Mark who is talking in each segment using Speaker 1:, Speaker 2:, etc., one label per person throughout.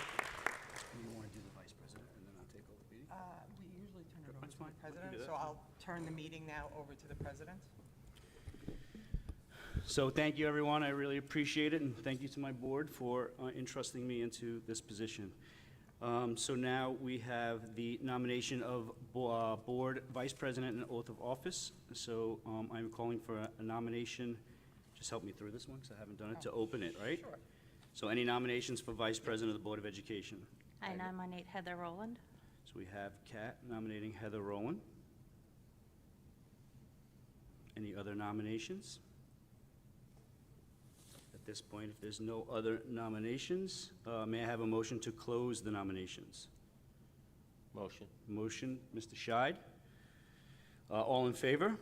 Speaker 1: Uh,
Speaker 2: fine. We can do
Speaker 1: President,
Speaker 2: that.
Speaker 1: so I'll turn the meeting now over to the president.
Speaker 2: So thank you, everyone. I really appreciate it, and thank you to my board for uh, entrusting me into this position. Um, So now we have the nomination of bo- uh, Board Vice President and oath of office. So um, I'm calling for a nomination, just help me through this one, because I haven't done it, to open it, right?
Speaker 1: Sure.
Speaker 2: So any nominations for Vice President of the Board of Education?
Speaker 3: I nominate Heather Rowland.
Speaker 2: So we have Kat nominating Heather Rowan. Any other nominations? At this point, if there's no other nominations, uh, may I have a motion to close the nominations?
Speaker 4: Motion.
Speaker 2: Motion, Mr. Scheid. Uh, All in favor?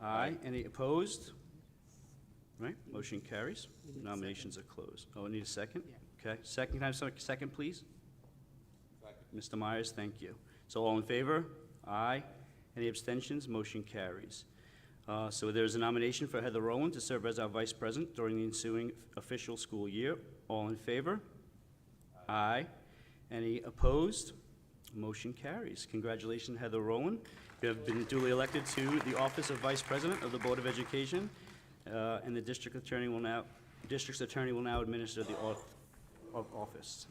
Speaker 2: Aye. Any opposed? Right, motion carries. Nominations are closed. Oh, I need a second? Okay, second, can I have some, second, please? Mr. Myers, thank you. So all in favor? Aye. Any abstentions? Motion carries. Uh, So there's a nomination for Heather Rowland to serve as our vice president during the ensuing official school year. All in favor? Aye. Any opposed? Motion carries. Congratulations, Heather Rowland. You have been duly elected to the office of Vice President of the Board of Education, uh, and the district attorney will now, district's attorney will now administer the oath of office.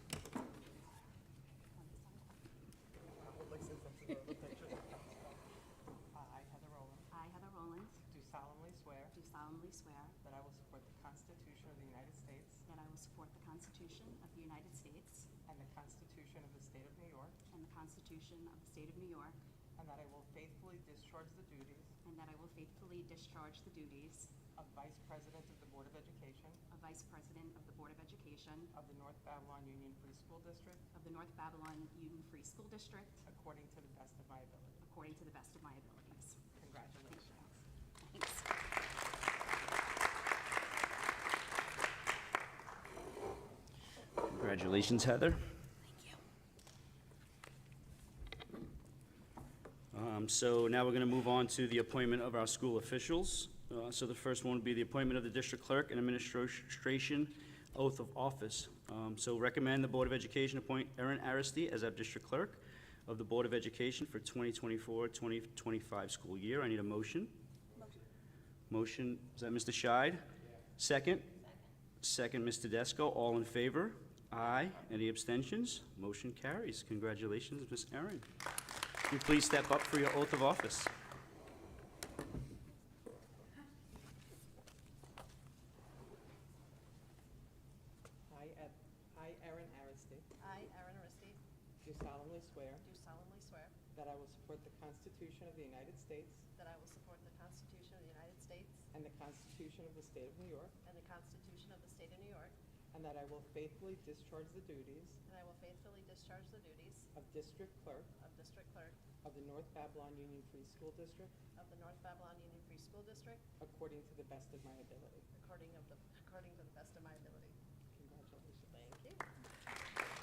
Speaker 1: Uh, I, Heather Rowland,
Speaker 5: I, Heather Rollins,
Speaker 1: do solemnly swear
Speaker 5: do solemnly swear
Speaker 1: that I will support the Constitution of the United States
Speaker 5: that I will support the Constitution of the United States
Speaker 1: and the Constitution of the State of New York,
Speaker 5: and the Constitution of the State of New York,
Speaker 1: and that I will faithfully discharge the duties
Speaker 5: and that I will faithfully discharge the duties
Speaker 1: of Vice President of the Board of Education
Speaker 5: of Vice President of the Board of Education
Speaker 1: of the North Babylon Union Free School District
Speaker 5: of the North Babylon Union Free School District
Speaker 1: according to the best of my ability.
Speaker 5: according to the best of my abilities.
Speaker 1: Congratulations.
Speaker 5: Thanks.
Speaker 2: Congratulations, Heather. Um, So now we're going to move on to the appointment of our school officials. Uh, So the first one would be the appointment of the district clerk and administration oath of office. Um, So recommend the Board of Education appoint Erin Aristi as our district clerk of the Board of Education for 2024-2025 school year. I need a motion. Motion, is that Mr. Scheid? Second? Second, Mr. Tedesco, all in favor? Aye. Any abstentions? Motion carries. Congratulations, Ms. Erin. Will you please step up for your oath of office?
Speaker 1: I, Ed- I, Erin Aristi,
Speaker 6: I, Erin Aristi,
Speaker 1: do solemnly swear
Speaker 6: do solemnly swear
Speaker 1: that I will support the Constitution of the United States
Speaker 6: that I will support the Constitution of the United States
Speaker 1: and the Constitution of the State of New York,
Speaker 6: and the Constitution of the State of New York,
Speaker 1: and that I will faithfully discharge the duties
Speaker 6: and I will faithfully discharge the duties
Speaker 1: of District Clerk
Speaker 6: of District Clerk
Speaker 1: of the North Babylon Union Free School District
Speaker 6: of the North Babylon Union Free School District
Speaker 1: according to the best of my ability.
Speaker 6: according of the, according to the best of my ability.
Speaker 1: Congratulations.
Speaker 6: Thank you.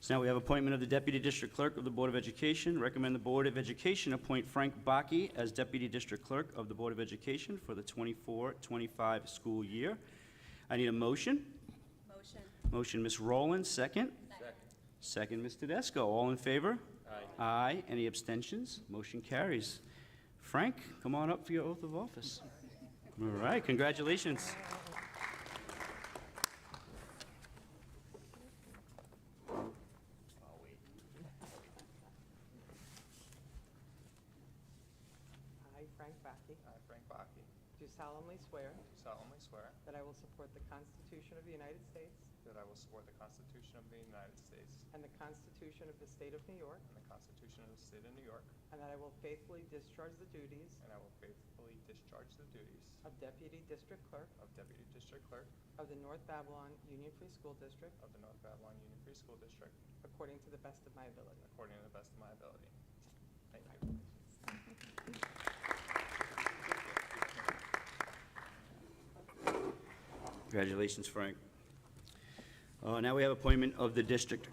Speaker 2: So now we have appointment of the Deputy District Clerk of the Board of Education. Recommend the Board of Education appoint Frank Baki as Deputy District Clerk of the Board of Education for the 24-25 school year. I need a motion.
Speaker 6: Motion.
Speaker 2: Motion, Ms. Rowland, second. Second, Ms. Tedesco, all in favor? Aye. Aye, any abstentions? Motion carries. Frank, come on up for your oath of office. All right, congratulations.
Speaker 1: I, Frank Backy,
Speaker 7: I, Frank Baki,
Speaker 1: do solemnly swear
Speaker 7: do solemnly swear
Speaker 1: that I will support the Constitution of the United States
Speaker 7: that I will support the Constitution of the United States
Speaker 1: and the Constitution of the State of New York,
Speaker 7: and the Constitution of the State of New York,
Speaker 1: and that I will faithfully discharge the duties
Speaker 7: and I will faithfully discharge the duties
Speaker 1: of Deputy District Clerk
Speaker 7: of Deputy District Clerk
Speaker 1: of the North Babylon Union Free School District
Speaker 7: of the North Babylon Union Free School District
Speaker 1: according to the best of my ability.
Speaker 7: according to the best of my ability. Thank you.
Speaker 2: Congratulations, Frank. Uh, Now we have appointment of the District